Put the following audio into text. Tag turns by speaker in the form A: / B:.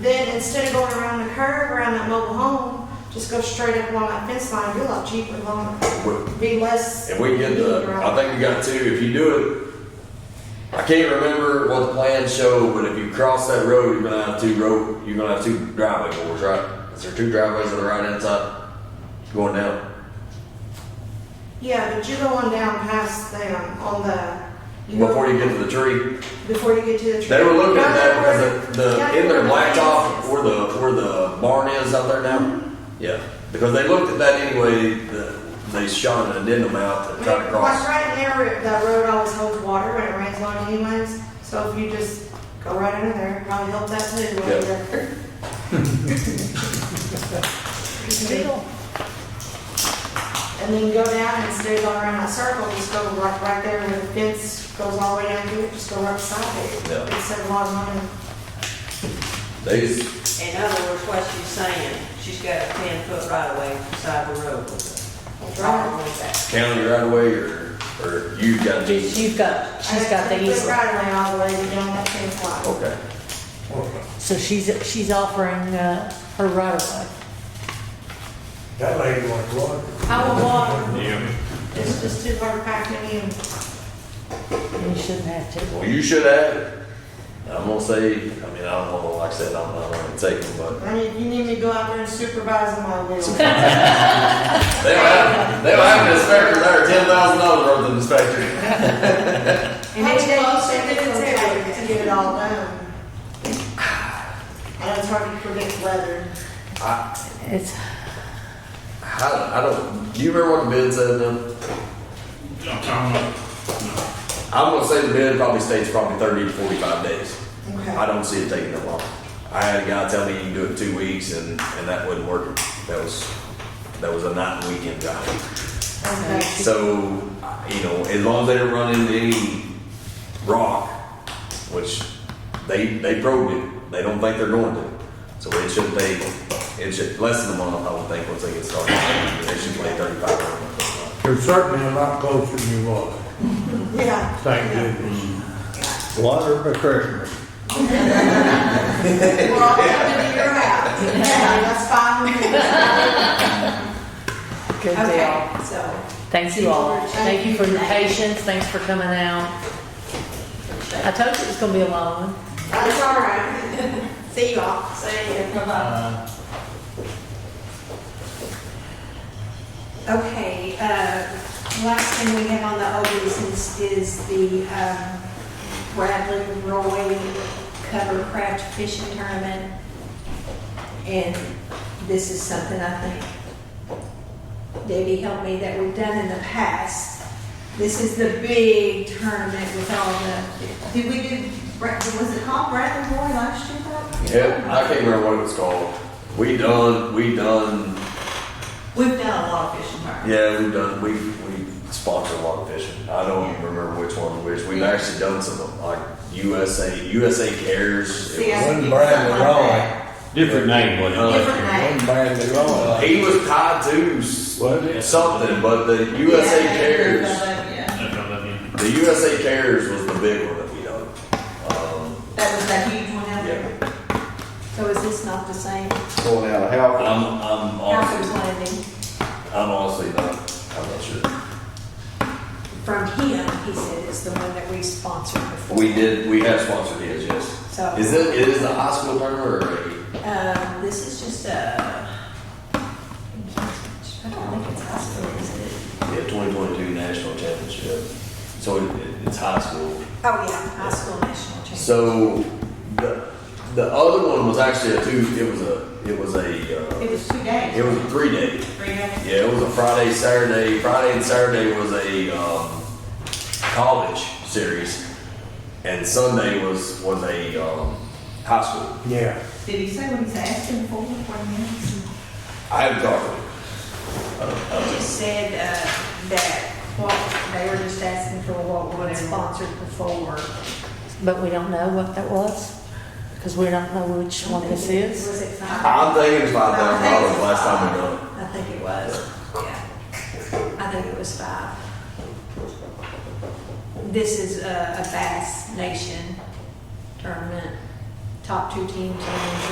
A: Then instead of going around the curve around that mobile home, just go straight up along that fence line, you're a lot cheaper, longer,
B: We-
A: be less.
B: If we get the, I think we got two, if you do it, I can't remember what the plans show, but if you cross that road, you're gonna have two road, you're gonna have two driveway doors, right? Is there two driveways on the right hand side going down?
A: Yeah, but you're going down past them on the. go-
B: Before you get to the tree,
A: Before you get to the.
B: they were looking at that because the,
A: Yeah,
B: the, in their
A: where the fence
B: blacktop,
A: is.
B: where the, where the barn is out there now? Yeah, because they looked at that anyway, the, they shot an addendum out to try to
A: Like
B: cross.
A: right there, that road always holds water when it rains on anyways, so if you just go right under there, probably help that too. while you're- And then go down and stay going around that circle, just go right, right there where the fence goes all the way down here, just go right beside
B: Yeah.
A: it. It saves a lot of money.
B: They just,
C: In other words, what she's saying, she's got a ten foot right away beside the road. What's wrong with that?
B: county right away or, or you've got deed?
D: She's got, she's got the
A: It's
D: easement.
A: right away all the way down that fence line.
B: Okay.
D: So she's, she's offering, uh, her right of way.
E: That lady wants water.
A: I will walk,
F: Yeah.
A: it's just too hard to pack me in.
D: And you shouldn't have to.
B: Well, you should have. I'm gonna say, I mean, I don't know, like I said, I'm not gonna take them, but
A: I mean, if you need me to go out there and supervise them, I will.
B: they don't have, they don't have an inspector there, ten thousand dollars worth of inspector.
A: And it's close, and it's to get it all done. I know it's hard to predict weather.
D: It's,
B: I, I don't, do you remember what the bid said then?
F: I'm talking about,
B: I'm gonna say the bid probably stays probably thirty to forty-five days. I
A: Okay.
B: don't see it taking that long. I had a guy tell me you can do it in two weeks and, and that wasn't working. That was, that was a night and weekend job.
A: Okay.
B: So, you know, as long as they don't run into any rock, which they, they probed it, they don't think they're going to. So it should take, it should, less than a month, I would think, once they get started. They should play thirty-five or something.
E: You're certainly a lot closer than you was.
A: Yeah.
E: Thank goodness.
G: Water for Christmas.
A: Well, I'll have to do your house. Yeah, that's fine with me.
D: good deal.
A: Okay, so.
D: Thank you all. Thank you for your patience. Thanks for coming out. I told you it was gonna be a long one.
A: That's all right. See you all. See you. Bye-bye.
F: Uh,
H: Okay, uh, last thing we have on the old business is the um, Bradley Roy Cover Craft Fishing Tournament. And this is something I think Debbie helped me that we've done in the past. This is the big tournament with all the, did we do, Brad- was it called Bradley Roy last year? Bob?
B: Yep, I can't remember what it was called. We done, we done,
C: We've done a lot of fishing here.
B: yeah, we done, we, we sponsored a lot of fishing. I don't even remember which one, which, we've actually done some, of them, like USA, USA Cares. It was-
A: Yeah.
G: Wasn't Bradley Roy,
F: different name, wasn't it?
B: Uh,
A: Different name.
G: wasn't Bradley Roy.
B: He was tied to s-
G: Was it?
B: something, but the USA Cares,
F: I don't know, yeah.
B: the USA Cares was the big one that we done. Um,
H: That was that huge one out
B: yeah,
H: there. So is this not the same?
G: Going out of Halifax.
B: I'm, I'm
H: Harper's
B: honestly,
H: Landing.
B: I'm honestly not, I'm not sure.
H: From him, he said it's the one that we sponsored before.
B: We did, we have sponsored his, yes.
H: So,
B: Is it, it is a high school tournament or
H: um, this is just a, I don't think it's hospital, is it?
B: a, yeah, twenty twenty-two national championship? So it, it's high school.
H: Oh, yeah, high school national championship.
B: So the, the other one was actually a two, it was a, it was a, uh,
C: It was two days.
B: it was a three-day.
C: Three days.
B: Yeah, it was a Friday, Saturday. Friday and Saturday was a um, college series, and Sunday was was a um, high school.
E: Yeah.
C: Did he say what he's asking for, what he needs?
B: I haven't talked to him.
H: He just said, uh, that what, they were just asking for what was sponsored before.
D: But we don't know what that was, because we don't know which one this is.
H: Was it five?
B: I'm thinking five thousand dollars last time we done.
H: I think it was, yeah. I think it was five. This is a a Bass Nation tournament, top two teams in the